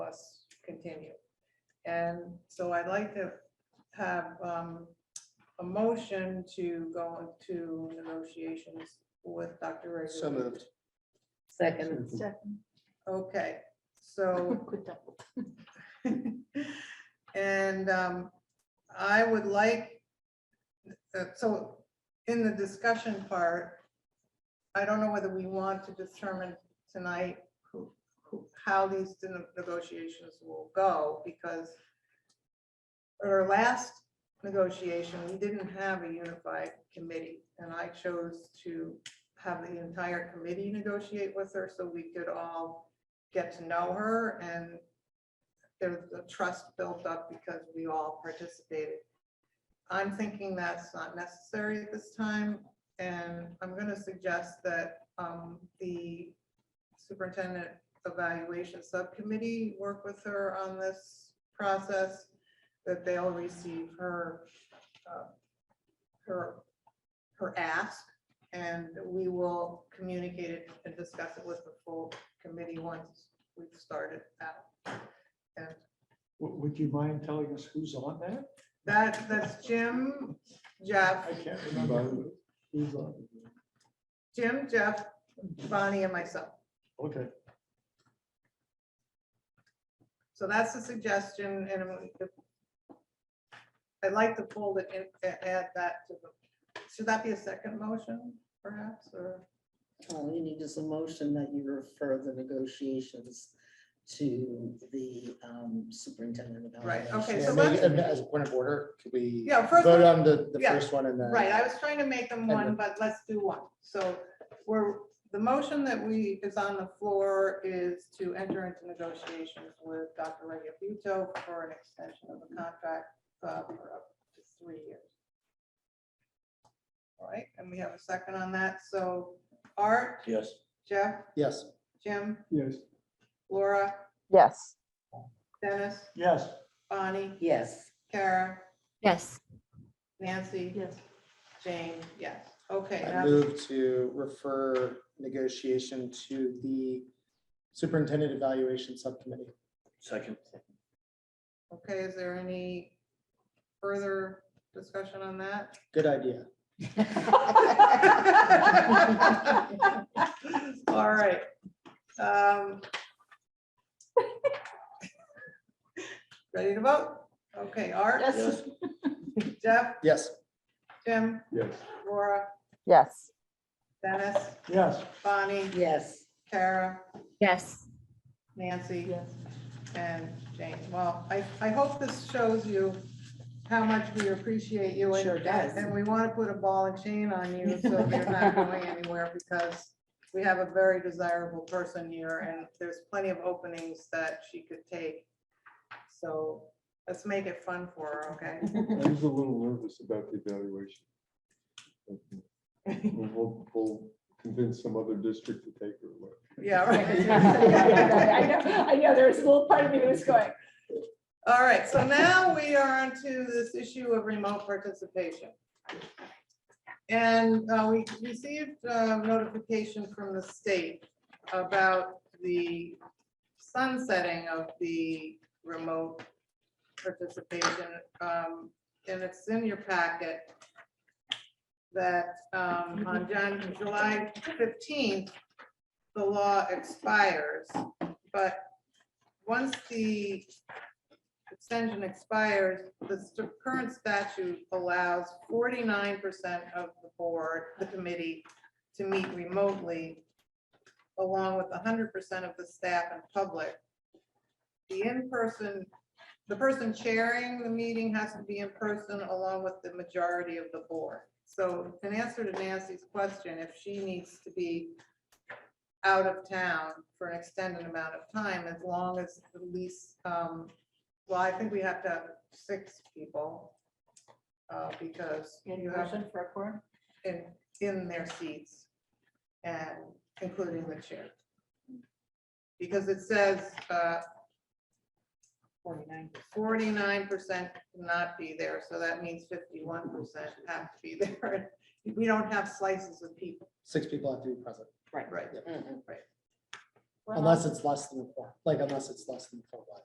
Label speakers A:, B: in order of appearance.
A: continue. And so I'd like to have um, a motion to go into negotiations with Dr. Ray.
B: So moved.
C: Second,
A: Okay, so, and um, I would like, uh, so in the discussion part, I don't know whether we want to determine tonight who, who, how these ne- negotiations will go, because at our last negotiation, we didn't have a unified committee, and I chose to have the entire committee negotiate with her, so we could all get to know her, and there's a trust built up because we all participated. I'm thinking that's not necessary at this time, and I'm gonna suggest that um, the superintendent evaluation subcommittee work with her on this process, that they'll receive her, uh, her, her ask, and we will communicate it and discuss it with the full committee once we've started out. And
D: W- Would you mind telling us who's on that?
A: that, that's Jim, Jeff,
D: I can't remember. who- Who's on?
A: Jim, Jeff, Bonnie, and myself.
D: Okay,
A: So that's the suggestion, and I'm- I'd like to fold it and a- add that to the, should that be a second motion perhaps, or?
C: all you need is a motion that you refer the negotiations to the um, superintendent.
A: Right, okay,
C: evaluation.
A: so
B: And
A: let's-
B: maybe, and as a point of order, could we
A: Yeah, first
B: vote
A: one-
B: on the, the
A: yeah,
B: first one and then?
A: Right, I was trying to make them
B: And
A: one,
B: then-
A: but let's do one. So we're, the motion that we, is on the floor is to enter into negotiations with Dr. Reggie Buto for an extension of the contract uh, for up to three years. All right, and we have a second on that. So Art,
E: Yes.
A: Jeff,
B: Yes,
A: Jim,
D: yes.
A: Laura,
F: Yes.
A: Dennis,
D: Yes.
A: Bonnie,
C: Yes,
A: Kara,
G: Yes.
A: Nancy. Yes. Jane, yes. Okay.
B: I
A: now-
B: move to refer negotiation to the superintendent evaluation subcommittee.
E: Second.
A: Okay, is there any further discussion on that?
B: Good idea.
A: All right. Um, Ready to vote? Okay, Art,
E: Yes.
A: Jeff,
B: Yes,
A: Jim,
D: Yes.
A: Laura,
F: Yes.
A: Dennis,
D: Yes,
A: Bonnie,
C: yes.
A: Kara,
G: Yes.
A: Nancy. And Jane. Well, I, I hope this shows you how much we appreciate you. and-
C: Sure does.
A: And we want to put a ball and chain on you so you're not going anywhere because we have a very desirable person here and there's plenty of openings that she could take. So let's make it fun for her, okay?
H: I was a little nervous about the evaluation. But We'll, we'll- we'll convince some other district to take her away.
A: Yeah.
I: I
A: right.
I: know, I know, there was a little part of me that was going,
A: All right, so now we are onto this issue of remote participation. And uh, we received uh, notification from the state about the sunsetting of the remote participation. um, And it's in your packet that um, on Jan- July 15th, the law expires. But once the extension expires, the st- current statute allows forty-nine percent of the board, the committee, to meet remotely, along with hundred percent of the staff and public. The in-person, the person chairing the meeting has to be in person along with the majority of the board. So in answer to Nancy's question, if she needs to be out of town for an extended amount of time, as long as the least, um, well, I think we have to have six people. Uh, because you have
C: for a quorum?
A: in, in their seats and including the chair. Because it says, uh, Forty-nine. percent not be there, so that means fifty-one percent have to be there. We don't have slices of people.
B: six people have to be present,
A: Right.
B: unless it's less than, four. like, unless it's less than four.